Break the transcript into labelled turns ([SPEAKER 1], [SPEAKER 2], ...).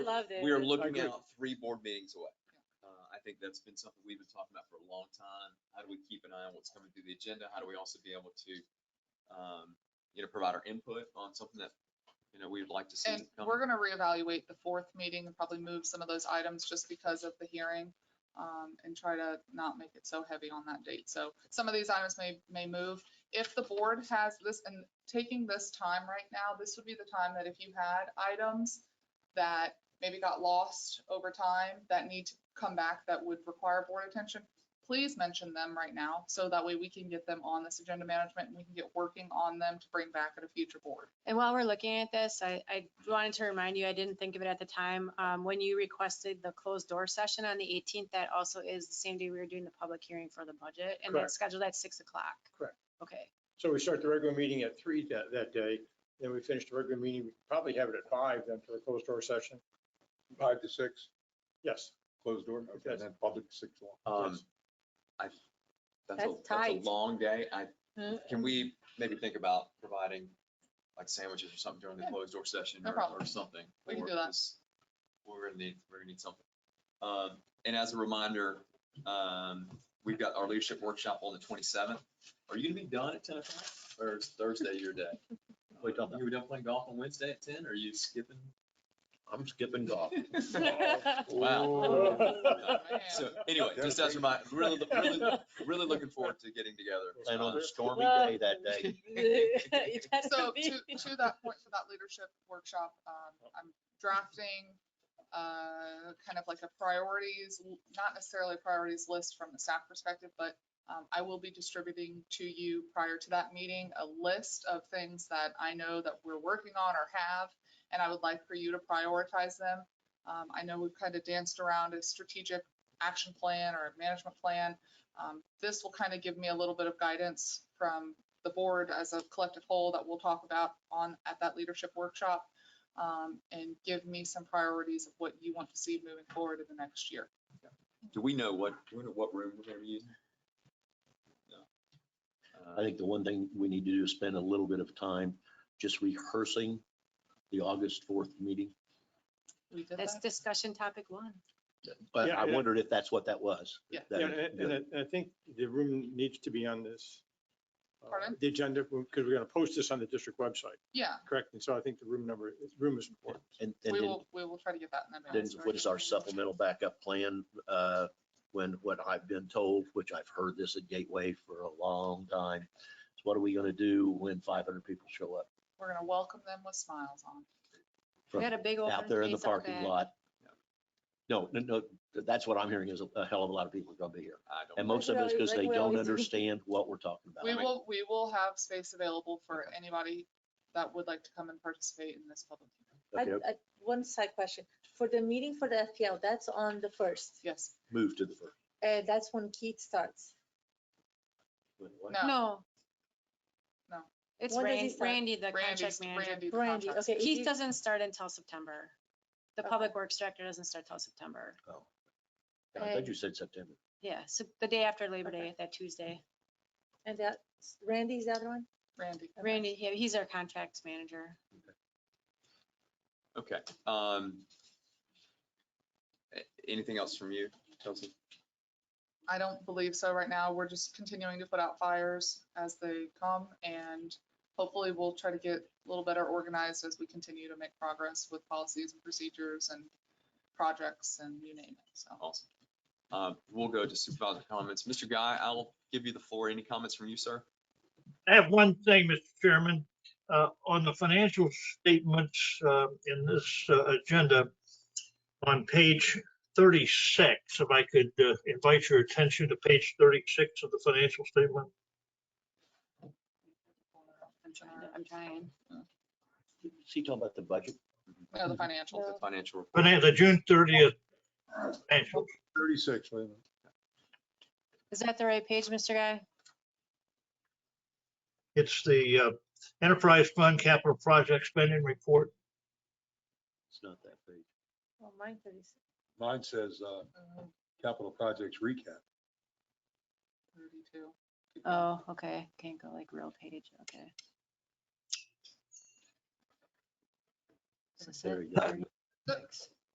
[SPEAKER 1] Loved it.
[SPEAKER 2] we are
[SPEAKER 1] It's
[SPEAKER 2] looking
[SPEAKER 3] agree.
[SPEAKER 2] out three board meetings away. Uh, I think that's been something we've been talking about for a long time. How do we keep an eye on what's coming through the agenda? How do we also be able to, um, you know, provide our input on something that, you know, we'd like to see
[SPEAKER 4] And
[SPEAKER 2] come?
[SPEAKER 4] we're gonna reevaluate the fourth meeting and probably move some of those items just because of the hearing. Um, and try to not make it so heavy on that date. So some of these items may, may move. If the board has this, and taking this time right now, this would be the time that if you had items that maybe got lost over time that need to come back that would require board attention, please mention them right now. So that way we can get them on this agenda management and we can get working on them to bring back at a future board.
[SPEAKER 1] And while we're looking at this, I, I wanted to remind you, I didn't think of it at the time, um, when you requested the closed door session on the 18th, that also is the same day we were doing the public hearing for the budget, and
[SPEAKER 3] Correct.
[SPEAKER 1] that's scheduled at 6 o'clock.
[SPEAKER 3] Correct.
[SPEAKER 1] Okay,
[SPEAKER 3] So we start the regular meeting at three that, that day, then we finish the regular meeting, we probably have it at five then for the closed door session.
[SPEAKER 5] Five to six,
[SPEAKER 3] Yes,
[SPEAKER 5] closed door, okay,
[SPEAKER 3] Yes.
[SPEAKER 5] and then public six to one.
[SPEAKER 2] Um,
[SPEAKER 3] Yes.
[SPEAKER 2] I, that's a,
[SPEAKER 1] That's
[SPEAKER 2] that's a
[SPEAKER 1] tight.
[SPEAKER 2] long day. I,
[SPEAKER 4] Mm-hmm.
[SPEAKER 1] Mm.
[SPEAKER 2] can we maybe think about providing like sandwiches or something during the
[SPEAKER 4] Yeah.
[SPEAKER 2] closed door session
[SPEAKER 4] No
[SPEAKER 2] or,
[SPEAKER 4] problem.
[SPEAKER 2] or something?
[SPEAKER 4] We can
[SPEAKER 2] for
[SPEAKER 4] do that.
[SPEAKER 2] this? We're gonna need, we're gonna need something. Um, and as a reminder, um, we've got our leadership workshop on the twenty-seventh. Are you gonna be done at ten o'clock or is Thursday your day?
[SPEAKER 6] Wait, don't-
[SPEAKER 2] You were done playing golf on Wednesday at ten? Are you skipping?
[SPEAKER 6] I'm skipping golf.
[SPEAKER 2] Wow.
[SPEAKER 3] Oh.
[SPEAKER 2] So anyway, just as a reminder, really, really, really looking forward to getting together. Um,
[SPEAKER 6] And on a stormy
[SPEAKER 7] Well-
[SPEAKER 6] day that day,
[SPEAKER 7] You better
[SPEAKER 4] So
[SPEAKER 7] be.
[SPEAKER 4] to, to that point, for that leadership workshop, um, I'm drafting, uh, kind of like a priorities, not necessarily a priorities list from the staff perspective, but, um, I will be distributing to you prior to that meeting, a list of things that I know that we're working on or have, and I would like for you to prioritize them. Um, I know we've kind of danced around a strategic action plan or a management plan. Um, this will kind of give me a little bit of guidance from the board as a collective whole that we'll talk about on, at that leadership workshop. um, And give me some priorities of what you want to see moving forward in the next year.
[SPEAKER 2] Do we know what, do we know what room we're gonna be using? No.
[SPEAKER 6] I think the one thing we need to do is spend a little bit of time just rehearsing the August 4th meeting.
[SPEAKER 4] We did
[SPEAKER 1] that's
[SPEAKER 4] that.
[SPEAKER 1] discussion topic one.
[SPEAKER 6] But
[SPEAKER 3] Yeah,
[SPEAKER 6] I
[SPEAKER 3] yeah.
[SPEAKER 6] wondered if that's what that was.
[SPEAKER 4] Yeah.
[SPEAKER 6] That-
[SPEAKER 3] Yeah, and and I, and I think the room needs to be on this. uh,
[SPEAKER 4] Pardon?
[SPEAKER 3] The agenda, because we're going to post this on the district website,
[SPEAKER 4] Yeah,
[SPEAKER 3] correct? And so I think the room number, room is important.
[SPEAKER 6] And, and
[SPEAKER 4] we
[SPEAKER 6] then,
[SPEAKER 4] will, we will try to get that in
[SPEAKER 6] then
[SPEAKER 4] advance.
[SPEAKER 6] what is our supplemental backup plan? uh, When, what I've been told, which I've heard this at Gateway for a long time, is what are we gonna do when 500 people show up
[SPEAKER 4] We're going to welcome them with smiles on.
[SPEAKER 1] We
[SPEAKER 6] From
[SPEAKER 1] had a big old.
[SPEAKER 6] out there in the
[SPEAKER 1] space out
[SPEAKER 6] parking
[SPEAKER 1] back.
[SPEAKER 6] lot? No, no, no, that's what I'm hearing is a- a hell of a lot of people are gonna be here.
[SPEAKER 2] I don't.
[SPEAKER 6] And
[SPEAKER 2] know.
[SPEAKER 6] most of it's because
[SPEAKER 7] Like
[SPEAKER 6] they
[SPEAKER 7] we
[SPEAKER 6] don't
[SPEAKER 7] always do.
[SPEAKER 6] understand what we're talking about.
[SPEAKER 4] We
[SPEAKER 2] I mean-
[SPEAKER 4] will, we will have space available for anybody that would like to come and participate in this public hearing.
[SPEAKER 7] I-
[SPEAKER 6] Okay,
[SPEAKER 7] I- One side question. For the meeting for the FPL, that's on the first.
[SPEAKER 4] Yes,
[SPEAKER 6] Move to the first.
[SPEAKER 7] Uh, that's when Keith starts.
[SPEAKER 6] Wait, what?
[SPEAKER 4] no,
[SPEAKER 1] No.
[SPEAKER 4] No.
[SPEAKER 1] It's
[SPEAKER 7] When does he
[SPEAKER 1] Ran-
[SPEAKER 7] start?
[SPEAKER 1] Randy, the
[SPEAKER 4] Randy's,
[SPEAKER 1] contract manager.
[SPEAKER 4] Randy. the
[SPEAKER 7] Randy,
[SPEAKER 4] contracts-
[SPEAKER 7] okay. if
[SPEAKER 1] Keith
[SPEAKER 7] you-
[SPEAKER 1] doesn't start until September. The
[SPEAKER 7] Okay.
[SPEAKER 1] public works director doesn't start till September.
[SPEAKER 6] I thought you said September.
[SPEAKER 1] Yeah, so the day after Labor
[SPEAKER 7] Okay.
[SPEAKER 1] Day, that Tuesday.
[SPEAKER 7] And that, Randy's the other one?
[SPEAKER 4] Randy.
[SPEAKER 7] Okay.
[SPEAKER 1] Randy, yeah, he's our contracts manager.
[SPEAKER 2] Okay, um. a- Anything else from you, Chelsea?
[SPEAKER 4] I don't believe so right now. We're just continuing to put out fires as they come and hopefully we'll try to get a little better organized as we continue to make progress with policies and procedures and projects and you name it. So
[SPEAKER 2] Awesome. Uh, we'll go to supervisor comments. Mr. Guy, I'll give you the floor. Any comments from you, sir?
[SPEAKER 8] I have one thing, Mr. Chairman, uh, on the financial statements, uh, in this, uh, agenda. On page thirty-six, if I could uh, invite your attention to page thirty-six of the financial statement.
[SPEAKER 1] I'm trying, to- uh, I'm trying.
[SPEAKER 6] Is he talking about the budget?
[SPEAKER 4] no, the financial.
[SPEAKER 2] The financial report.
[SPEAKER 8] Finan- the June thirtieth financials.
[SPEAKER 5] Thirty-six, wait a minute.
[SPEAKER 1] Is that the right page, Mr. Guy?
[SPEAKER 8] It's the, uh, enterprise fund capital project spending report.
[SPEAKER 6] It's not that big.
[SPEAKER 7] Oh, mine thirty-six.
[SPEAKER 5] Mine says, uh,
[SPEAKER 4] Mm-hmm.
[SPEAKER 5] capital projects recap.
[SPEAKER 4] Thirty-two.
[SPEAKER 1] Oh, okay. Can't go like real page, okay. So
[SPEAKER 6] There
[SPEAKER 1] set
[SPEAKER 6] you go.
[SPEAKER 1] thirty-
[SPEAKER 4] So,